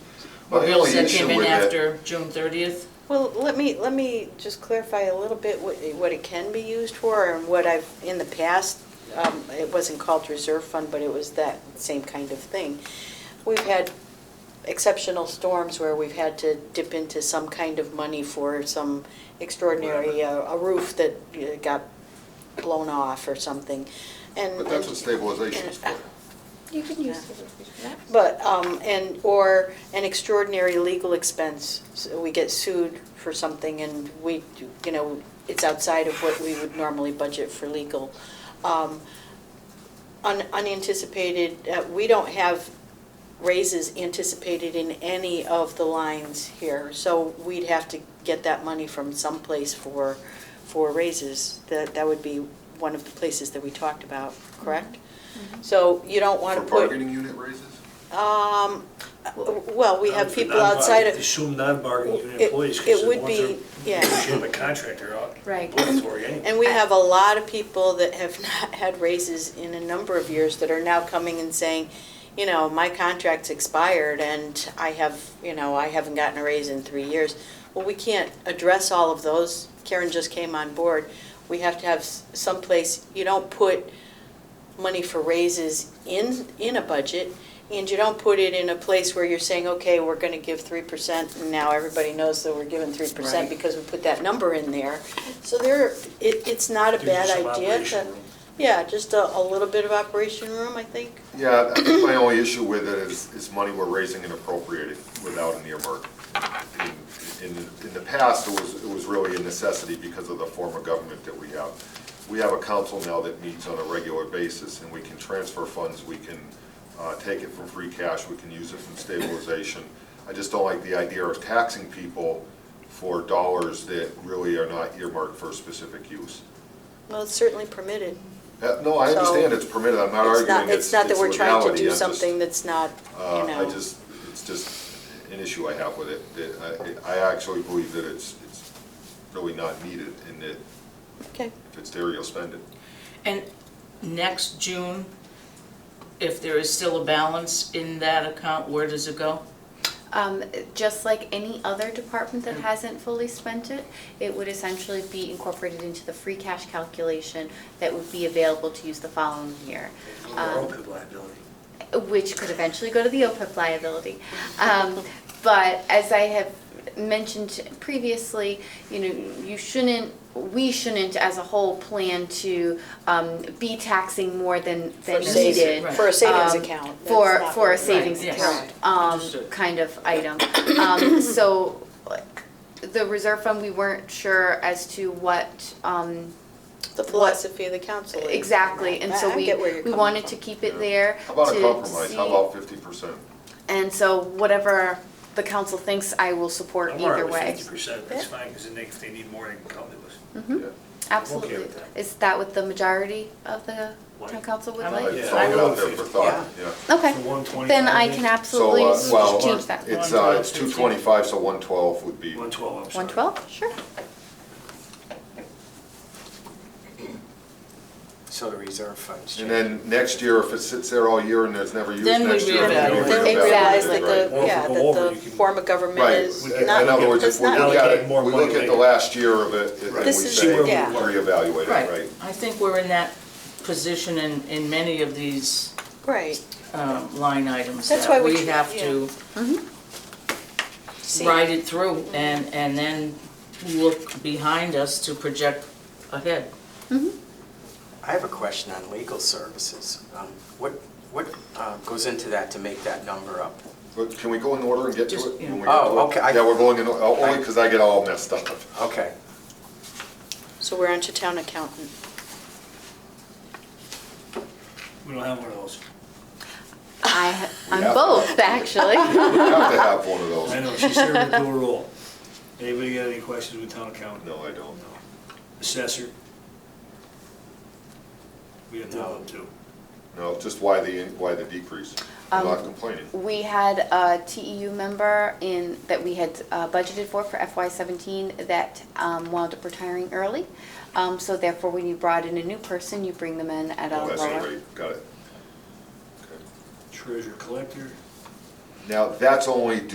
My Or you'll only send issue him in with that- after June thirtieth? Well, let me, let me just clarify a little bit what, what it can be used for and what I've, in the past, um, it wasn't called reserve fund, but it was that same kind of thing. We've had exceptional storms where we've had to dip into some kind of money for some extraordinary, uh, a roof that uh, got blown off or something. And uh, But that's what stabilization is for. You can use But, um, and, or an extraordinary legal expense, So we get sued for something and we, do- you know, it's outside of what we would normally budget for legal. Um, un- Unanticipated, uh, we don't have raises anticipated in any of the lines here, so we'd have to get that money from someplace for, for raises. That, that would be one of the places that we talked about, correct? So you don't want For to put. bargaining unit raises? Um, well, we have For people non-bar- outside of, Assume non-bargaining unit It- employees, it because the would ones be- yeah. that negotiate with a contractor are Right. obligatory anyway. and we have a lot of people that have not had raises in a number of years that are now coming and saying, you know, my contract's expired and I have, you know, I haven't gotten a raise in three years. Well, we can't address all of those. Karen just came on board. We have to have s- someplace, you don't put money for raises in, in a budget, and you don't put it in a place where you're saying, okay, we're gonna give three percent, and now everybody knows that we're giving three percent Right. because we put that number in there. So there, it, it's not a Gives you bad some idea operation to, room. yeah, just a, a little bit of operation room, I think. Yeah, I think my only issue with it is, is money we're raising and appropriating without an earmark. In, in in the past, it was, it was really a necessity because of the form of government that we have. We have a council now that meets on a regular basis, and we can transfer funds, we can uh, take it from free cash, we can use it from stabilization. I just don't like the idea of taxing people for dollars that really are not earmarked for specific use. Well, it's certainly permitted. Uh, No, I So- understand it's permitted, I'm not It's arguing not, it's it's it's not that we're trying to legality, do I'm just- something that's not, you uh, know. I just, it's just an issue I have with it, that I, I actually believe that it's, it's really not needed, and that Okay, if it's there, you'll spend it. And next June, if there is still a balance in that account, where does it go? Um, just like any other department that hasn't fully spent it, it would essentially be incorporated into the free cash calculation that would be available to use the following year. Or Um, OPEB liability. which could eventually go to the OPEB liability. Um, But as I have mentioned previously, you know, you shouldn't, we shouldn't as a whole plan to um, be taxing more than, than For savings, needed. right. for a savings um, account. that's For, not for a really- savings yes. account, um, Understood. kind of item. Um, So the reserve fund, we weren't sure as to what, um, The philosophy of the council. is. exactly. And I- I so we, get where you're we coming wanted to from. keep it there. How about a to compromise, how see- about fifty percent? and so whatever the council thinks, I will support I'm all right either with way. fifty percent, that's Yeah. fine, because then they- if they need more, they can come to Mm-hmm. us. Yeah. Absolutely. with that. Is that what the majority of the town Like- council would I'm I like- like? just Yeah. throwing it out there Yeah. for thought, yeah. Okay, For 125, then I I think. can So, absolutely uh, s- well, change that. It's, uh, it's two twenty-five, so one twelve would be, One twelve, I'm sorry. One twelve, sure. So the reserve funds. and then next year, if it sits there all year and it's never used Then we next year. reevaluate. Then reevaluate they it, realize that right. the, Well, if yeah, we that go over, the you can- form of government Right, is in not, other words, that's if we not. look at Allocate it, more we money look at the later. last year of it, and we This is- say, yeah. reevaluate it, right? I think we're in that position in, in many of these Right. um, line items. That's that why we tr- have yeah. to See, ride it through and, and then look behind us to project ahead. I have a question on legal services. Um, What, what uh, goes into that to make that number up? But can we go in order and get to it? Just, when we yeah. get to Oh, it? okay, I- Yeah, we're going in, o- only because I get all messed up. Okay, So we're onto town accountant. We don't have one of those. I, ha- Yeah. I'm both, actually. We have to have one of I those. know, she's serving a dual role. Anybody got any questions with town accountant? No, I don't. Assessor? We have none of them too. No, just why the, why the decrease? I'm not complaining. We had a TEU member in, that we had uh, budgeted for, for FY seventeen, that um, wound up retiring early. Um, So therefore, when you brought in a new person, you bring them in at a Oh, that's lower. right, got it. Okay. Treasurer collector? Now, that's only